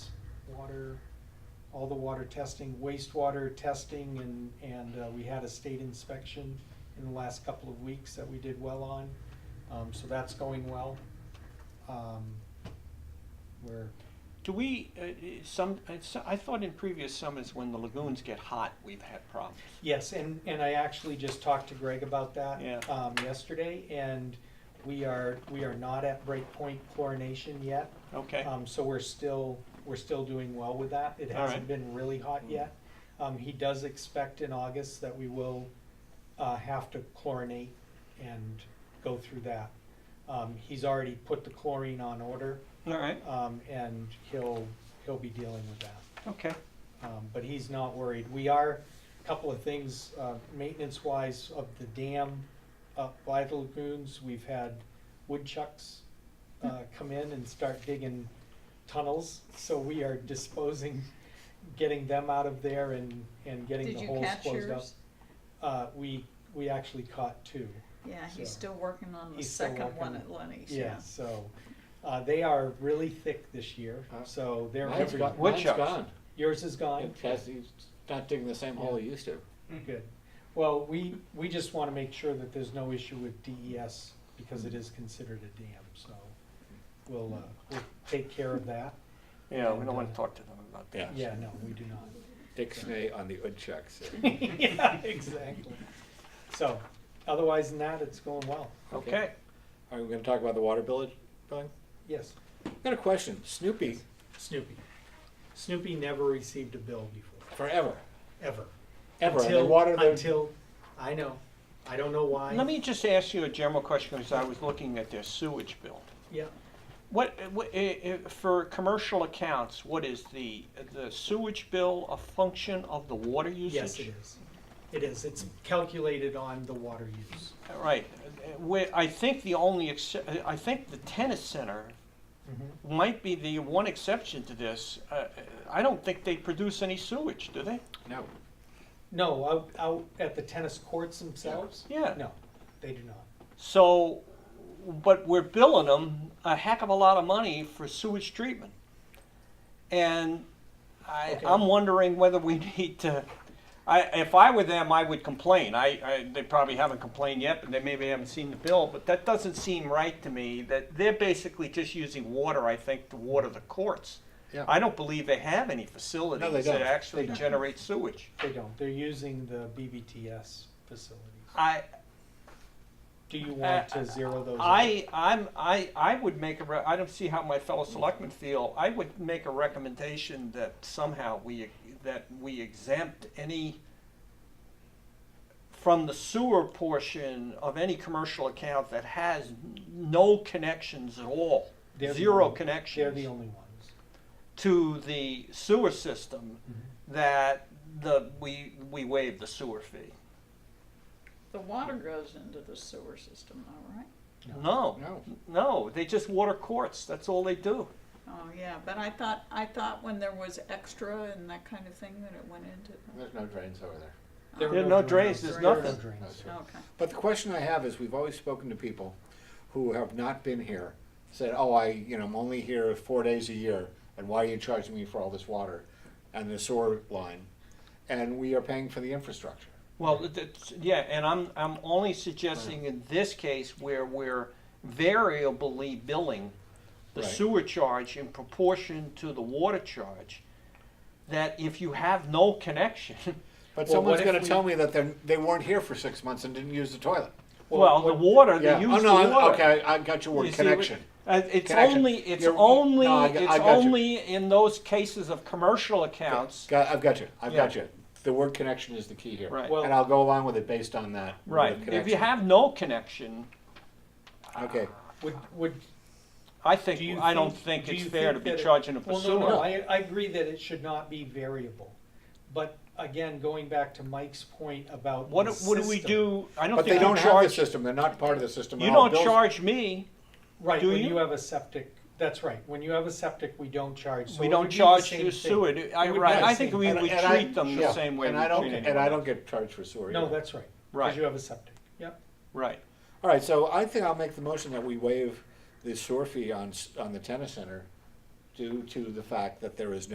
water, all the water testing, wastewater testing, and, and uh, we had a state inspection in the last couple of weeks that we did well on, um, so that's going well. Um, We're, Do we, uh, some, it's- I thought in previous summers, when the lagoons get hot, we've had problems. Yes, and, and I actually just talked to Greg about that. Yeah. Um, yesterday, and we are, we are not at breakpoint chlorination yet. Okay, Um, so we're still, we're still doing well with that. It All hasn't right. Hmm. been really hot yet. Um, he does expect in August that we will, uh, have to chlorinate and go through that. Um, he's already put the chlorine on order, all right, um, and he'll, he'll be dealing with that okay, um, but he's not worried. We are, a couple of things, uh, maintenance-wise of the dam up by the lagoons, we've had woodchucks, uh, Hmm. come in and start digging tunnels, so we are disposing, getting them out of there and, and getting Did the you holes catch closed up. yours? Uh, we, we actually caught two, Yeah, he's So- still working on the He's still second working one on- at Lenny's, yeah. yeah, so, uh, they are really thick this year, Huh. so they're Mine's every- gone, mine's Woodchucks. gone. Yours is gone? It has, he's not digging the same hole he used to. Good. Well, we, we just want to make sure that there's no issue with DES because it is considered a dam, so we'll, uh, we'll take care of that. yeah, we don't wanna talk to them about that. Yeah, no, we do not. Dictionary on the woodchucks. Yeah, exactly. So, otherwise than that, it's going well. Okay, Are we gonna talk about the water bill, billing? Yes, I've Got a question, Snoopy, Snoopy. Snoopy never received a bill before, forever, ever. ever, and they Until- water the, Until, I know, I don't know why. let me just ask you a general question, because I was looking at their sewage bill. Yeah, What, what, eh, eh, for commercial accounts, what is the, the sewage bill a function of the water usage? yes, it is. It is. It's calculated on the water use. Right, eh, where, I think the only, ex- eh, I think the tennis center Mm-hmm. might be the one exception to this. Uh, I don't think they produce any sewage, do they? no, No, out, out at the tennis courts themselves? Yeah. No, they do not. So, but we're billing them a heck of a lot of money for sewage treatment. And I, Okay. I'm wondering whether we need to, I, if I were them, I would complain. I, I, they probably haven't complained yet, but they maybe haven't seen the bill, but that doesn't seem right to me, that they're basically just using water, I think, to water the courts. Yeah. I don't believe they have any facilities don't. that actually generate sewage. They don't. They're using the BBTS facilities. I, Do you want to zero those? out? Uh, I, I'm, I, I would make a, re- I don't see how my fellow selectmen feel, I would make a recommendation that somehow we, that we exempt any from the sewer portion of any commercial account that has no connections at all, They're the zero only- They're the connections only ones. to the sewer system, that the, we, we waive the sewer fee. The water goes into the sewer system though, right? No, no. no, they just water courts, that's all they do. Oh, yeah, but I thought, I thought when there was extra and that kind of thing that it went into. Oh, There's no drains over there. There There are are no drains, there's There are no nothing. drains. Okay, But the question I have is, we've always spoken to people who have not been here, said, oh, I, you know, I'm only here four days a year, and why are you charging me for all this water and the sewer line? And we are paying for the infrastructure. Well, that's, yeah, and I'm, I'm only suggesting in this case where we're variably billing the Right. sewer charge in proportion to the water charge, that if you have no connection, But Well, what someone's if gonna we- tell me that they're, they weren't here for six months and didn't use the toilet. well, the water, Yeah. they use oh, the no, I- water. Okay, I I got your word, You see, we- connection. Uh, it's Connection. only, it's You're- only, no, I got- I it's got you. only in those cases of commercial accounts, Got, I've got you. I've Yeah. got you. The word connection is the key here. Right. Well- and I'll go along with it based on that. word right, of if you connection. have no connection, Okay. Would, would. I do think, you I don't think do it's you fair to think be that it- charging them for Well, no, sewer. no, I, I agree that it should not be variable. But again, going back to Mike's point about. What, the do- what do we system. do, I don't But they think don't you have the charge, system. They're not part of the system. you at all. don't Bill's- charge me, Right, Do when you? you have a septic, that's right, when you have a septic, we don't charge. So we it don't would be the charge same you thing. sewer, Do- I, It would be right, the I think same we thing. would and I- treat them the yeah, same way we And I don't. treat And I anyone. don't get charged for sewer. No, either. that's right. Right. Because you have a septic, yep. Right, All right. So I think I'll make the motion that we waive the sewer fee on s- on the tennis center, due to the fact that there is no.